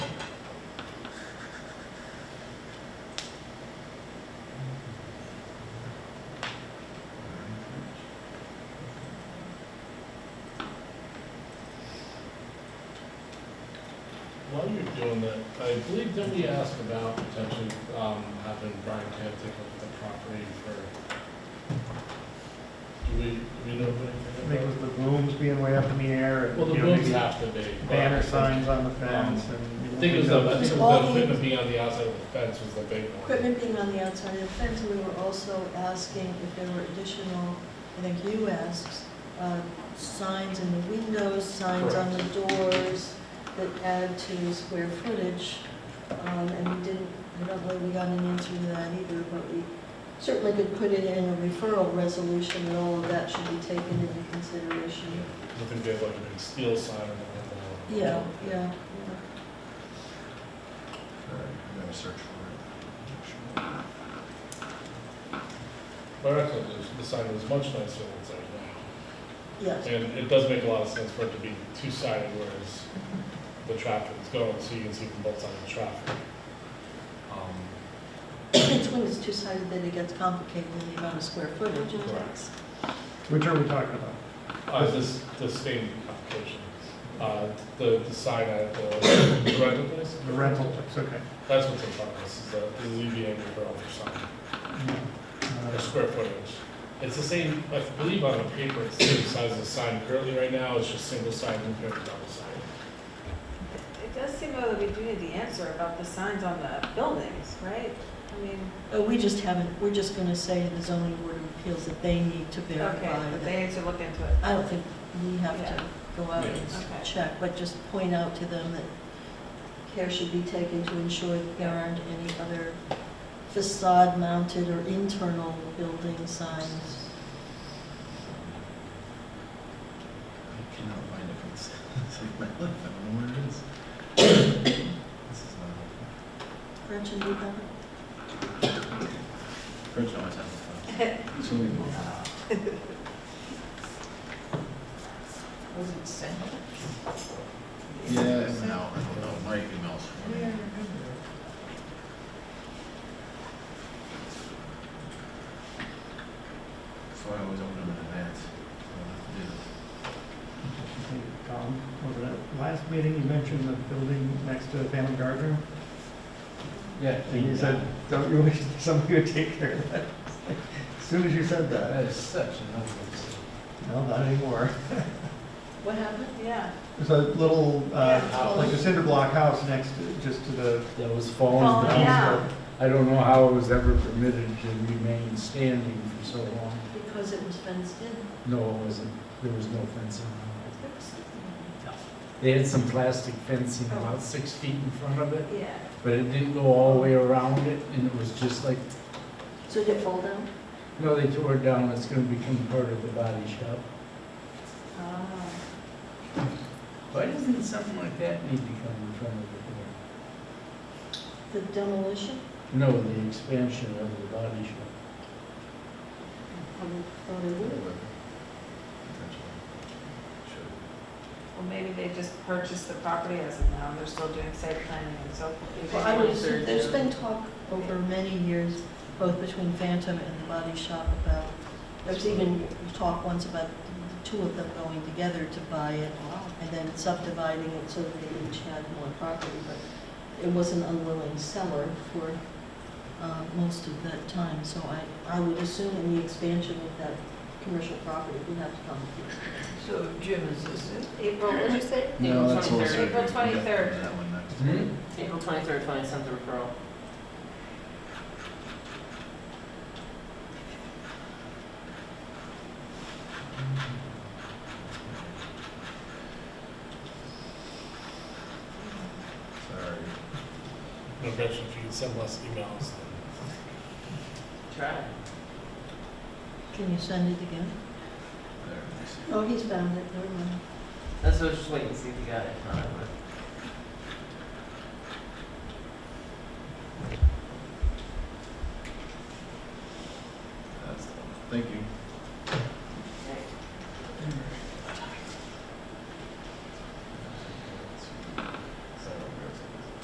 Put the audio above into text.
doing that, I believe that we asked about potentially, um, having Brian Camp take over the property for, do we, do we know I anything think it about? was the booms being way up in the air Well, and, the you know, rooms maybe have to be. but- banner signs on the fence I and. think it was, the- I think it All was the the- equipment being on the outside of the fence was the big one. Equipment being on the outside of the fence, we were also asking if there were additional, I think you asked, uh, signs in the windows, signs on the doors that add to the square footage. Um, And we didn't, I don't know if we got an answer to that either, but we certainly could put it in a referral resolution and all of that should be taken into consideration. I think they have like a big steel sign on the window. Yeah, yeah, I'm gonna search for it. But I thought the- the sign was much nicer than it's like now. yeah, yes. And it does make a lot of sense for it to be two-sided, whereas the traffic is going, so you can see from both sides of the traffic. Um, It's when it's two-sided that it gets complicated in the amount of square footage it Correct. takes. Which are we talking about? Uh, this, the same application, uh, the, the sign at the rental place? The rental place, okay. That's what's in front of us, is the, the ZBA referral for sign, or Uh, square footage. It's the same, I believe on the paper, it's the same size as the sign currently right now, it's just single sign compared to double sign. It does seem though that we do need the answer about the signs on the buildings, right? I mean, Uh, We just haven't, we're just going to say to the zoning board of appeals that they need to okay, verify but that. they need to look into it. I don't think we have to Yeah. go out Yeah. and Okay. check, but just point out to them that care should be taken to ensure that there aren't any other facade-mounted or internal building signs. I cannot find it from this, it's like my life, I don't know where it is. This is not helpful. Gretchen, do you have it? French always has a phone. So we move on. Was it sent? Yeah, it went out, I don't know, my emails. So I always open them in advance. Tom, was it at last meeting you mentioned the building next to Van Gardner? Yeah. And you said, don't you wish somebody would take care of that? As soon as you said that, is such an obvious. no, not anymore. What happened? Yeah. There's a little, uh, Yeah. like a cinder block house next, to- just to the. that was Falling Oh, falling down. down. I don't know how it was ever permitted to remain standing for so long. Because it was fenced in. No, it wasn't. There was no fencing. They had some plastic fencing about Oh. six feet in front of it, Yeah. but it didn't go all the way around it, and it was just like, So did it fall down? no, they tore it down, it's gonna become part of the body shop. Ah. Why doesn't something like that need to come in front of the The demolition? board? No, the expansion of the body shop. Probably- Probably would. Well, maybe they just purchased the property as of now, they're still doing site planning and so forth. Well, I would assume, there's been talk over many years, both between Phantom and the Body Shop about, there's even talk once about the two of them going together to buy it and then subdividing it so that they each had more property, but it was an unwilling seller for uh, most of that time, so I, I would assume in the expansion of that commercial property would have to come. So Jim, is this April, what'd you say? No, that's all April surgery. April twenty-third. That one next. Hmm? April twenty-third, twenty-seventh referral. Sorry. No, Gretchen, if you could send less emails, Try. Can you send it again? There it is. Oh, he's found it, never mind. That's what I was just waiting to see if you got it. If not, I would've